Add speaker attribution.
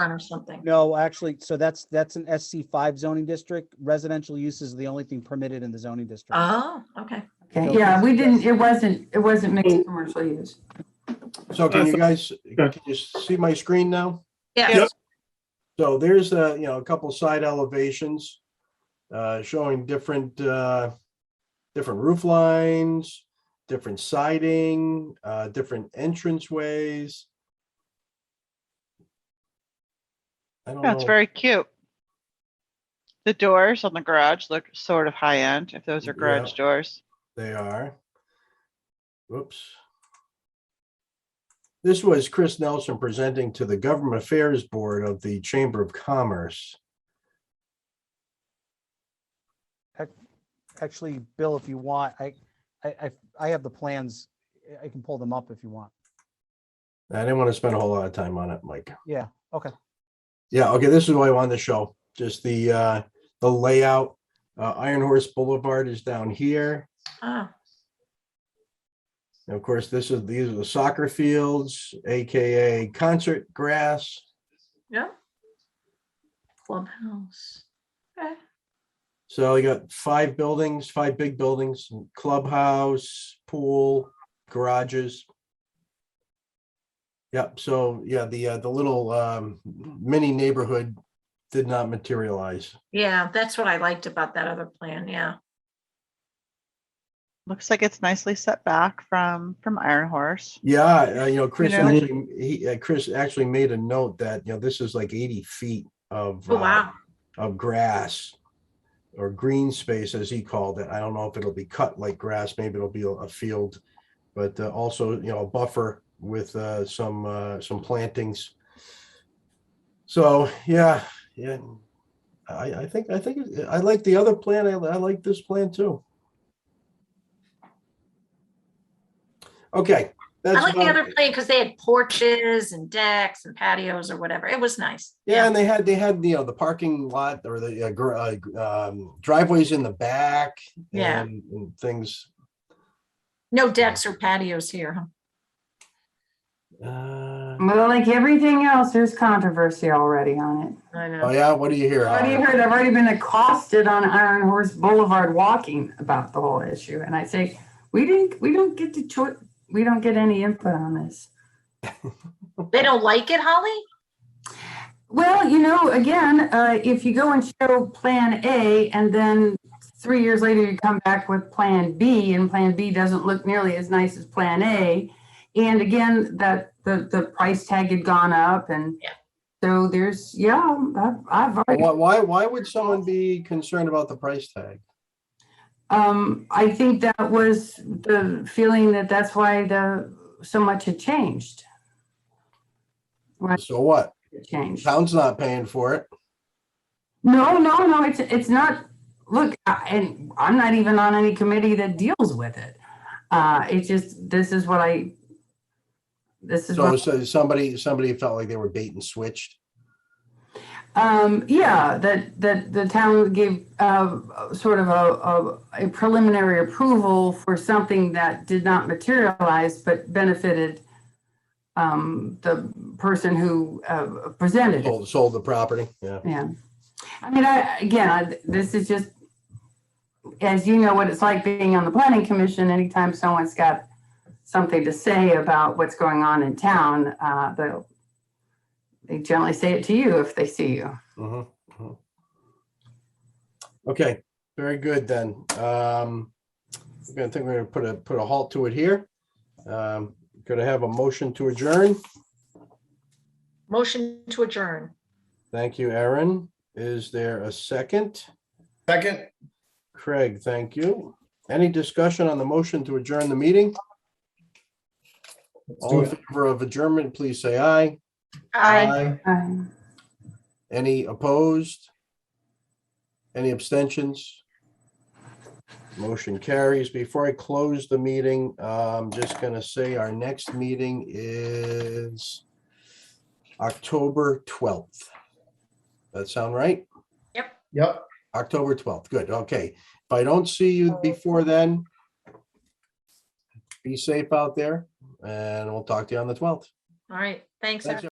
Speaker 1: or something.
Speaker 2: No, actually, so that's, that's an SC five zoning district. Residential use is the only thing permitted in the zoning district.
Speaker 1: Oh, okay.
Speaker 3: Okay, yeah, we didn't, it wasn't, it wasn't mixed commercial use.
Speaker 4: So can you
Speaker 5: Awesome.
Speaker 4: guys, can you see my screen now?
Speaker 1: Yes.
Speaker 4: So there's a, you know, a couple side elevations uh, showing different, uh, different roof lines, different siding, uh, different entrance ways. I don't
Speaker 6: That's
Speaker 4: know.
Speaker 6: very cute. The doors on the garage look sort of high end, if those are
Speaker 4: Yeah.
Speaker 6: garage doors.
Speaker 4: They are. Whoops. This was Chris Nelson presenting to the Government Affairs Board of the Chamber of Commerce.
Speaker 2: Actually, Bill, if you want, I, I, I- I have the plans. I- I can pull them up if you want.
Speaker 4: I didn't want to spend a whole lot of time on it, Mike.
Speaker 2: Yeah, okay.
Speaker 4: Yeah, okay, this is what I wanted to show, just the, uh, the layout. Uh, Iron Horse Boulevard is down here.
Speaker 1: Ah,
Speaker 4: And of course, this is, these are the soccer fields, AKA concert grass.
Speaker 1: yeah. Clubhouse. Okay.
Speaker 4: So you got five buildings, five big buildings, clubhouse, pool, garages. Yep, so yeah, the uh, the little um mini neighborhood did not materialize.
Speaker 1: Yeah, that's what I liked about that other plan. Yeah.
Speaker 6: Looks like it's nicely set back from, from Iron Horse.
Speaker 4: Yeah, uh, you know, Chris
Speaker 6: know-
Speaker 4: actually, he, uh, Chris actually made a note that, you know, this is like eighty feet of
Speaker 1: Oh,
Speaker 4: uh,
Speaker 1: wow.
Speaker 4: of grass or green space, as he called it. I don't know if it'll be cut like grass, maybe it'll be a- a field. But uh, also, you know, a buffer with uh, some, uh, some plantings. So, yeah, yeah. I, I think, I think, it- I like the other plan. I, I like this plan too. Okay.
Speaker 1: I
Speaker 4: that's
Speaker 1: like the
Speaker 4: about-
Speaker 1: other plan because they had porches and decks and patios or whatever. It was nice.
Speaker 4: Yeah, and they had, they had, you know, the parking lot or the uh, gr- uh, um, driveways in the back.
Speaker 1: Yeah.
Speaker 4: and- and Things,
Speaker 1: No decks or patios here. huh?
Speaker 4: uh,
Speaker 3: Well, like everything else, there's controversy already on it.
Speaker 1: I
Speaker 4: oh
Speaker 1: know.
Speaker 4: yeah, what do you hear? Uh,
Speaker 3: What do you heard? I've already been accosted on Iron Horse Boulevard walking about the whole issue, and I say, we didn't, we don't get to choi, we don't get any input on this.
Speaker 1: They don't like it, Holly?
Speaker 3: Well, you know, again, uh, if you go and show Plan A and then three years later you come back with Plan B and Plan B doesn't look nearly as nice as Plan A. And again, that the, the price tag had gone up and
Speaker 1: Yeah.
Speaker 3: so there's, yeah, I've, I've already,
Speaker 4: Why, why, why would someone be concerned about the price tag?
Speaker 3: um, I think that was the feeling that that's why the, so much had changed. Right,
Speaker 4: So what?
Speaker 3: it changed.
Speaker 4: Town's not paying for it.
Speaker 3: No, no, no, it's, it's not, look, I- and I'm not even on any committee that deals with it. Uh, it's just, this is what I, this is
Speaker 4: So
Speaker 3: what,
Speaker 4: so somebody, somebody felt like they were bait and switched.
Speaker 3: um, yeah, that, that the town gave, uh, sort of a, a, a preliminary approval for something that did not materialize, but benefited, um, the person who, uh, presented it.
Speaker 4: Sold, sold the property, yeah.
Speaker 3: Yeah. I mean, I, again, I, this is just, as you know, what it's like being on the planning commission, anytime someone's got something to say about what's going on in town, uh, they'll, they generally say it to you if they see you.
Speaker 4: Mhm, mhm. Okay, very good then. Um, I'm gonna think we're gonna put a, put a halt to it here. Um, gonna have a motion to adjourn.
Speaker 1: Motion to adjourn.
Speaker 4: Thank you, Aaron. Is there a second?
Speaker 5: Second,
Speaker 4: Craig, thank you. Any discussion on the motion to adjourn the meeting?
Speaker 5: let's do
Speaker 4: All in
Speaker 5: it.
Speaker 4: favor of adjournment, please say aye. Uh,
Speaker 1: I
Speaker 3: Um,
Speaker 4: Any opposed? Any abstentions? Motion carries. Before I close the meeting, I'm just gonna say our next meeting is October twelfth. That sound right?
Speaker 5: Yep,
Speaker 4: October twelfth. Good, okay. If I don't see you before then, be safe out there and we'll talk to you on the twelfth.
Speaker 1: All right. Thanks.
Speaker 4: Thanks,
Speaker 1: everyone.